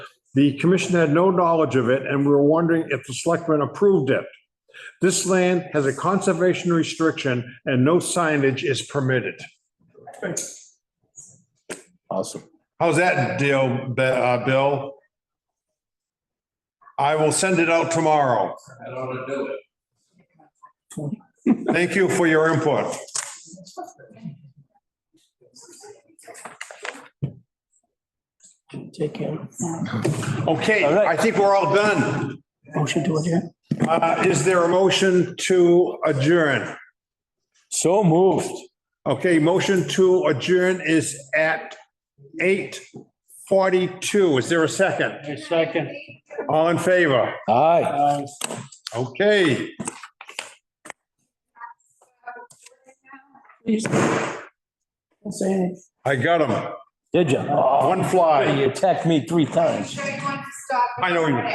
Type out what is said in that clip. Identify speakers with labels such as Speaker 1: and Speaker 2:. Speaker 1: The commission had no knowledge of it and we were wondering if the selectmen approved it. This land has a conservation restriction and no signage is permitted.
Speaker 2: Awesome.
Speaker 1: How's that deal, Be- uh, Bill? I will send it out tomorrow. Thank you for your input.
Speaker 3: Take care.
Speaker 1: Okay,
Speaker 2: All right.
Speaker 1: I think we're all done.
Speaker 3: Motion to adjourn.
Speaker 1: Uh, Is there a motion to adjourn?
Speaker 2: So moved.
Speaker 1: Okay, motion to adjourn is at 8:42. Is there a second?
Speaker 3: Second.
Speaker 1: All in favor?
Speaker 2: Aye.
Speaker 1: Uh, Okay.
Speaker 3: Please. Don't say anything.
Speaker 1: I got them.
Speaker 2: Did you?
Speaker 1: One fly.
Speaker 2: You attacked me three times.
Speaker 4: Sure you want to stop.
Speaker 1: I know you-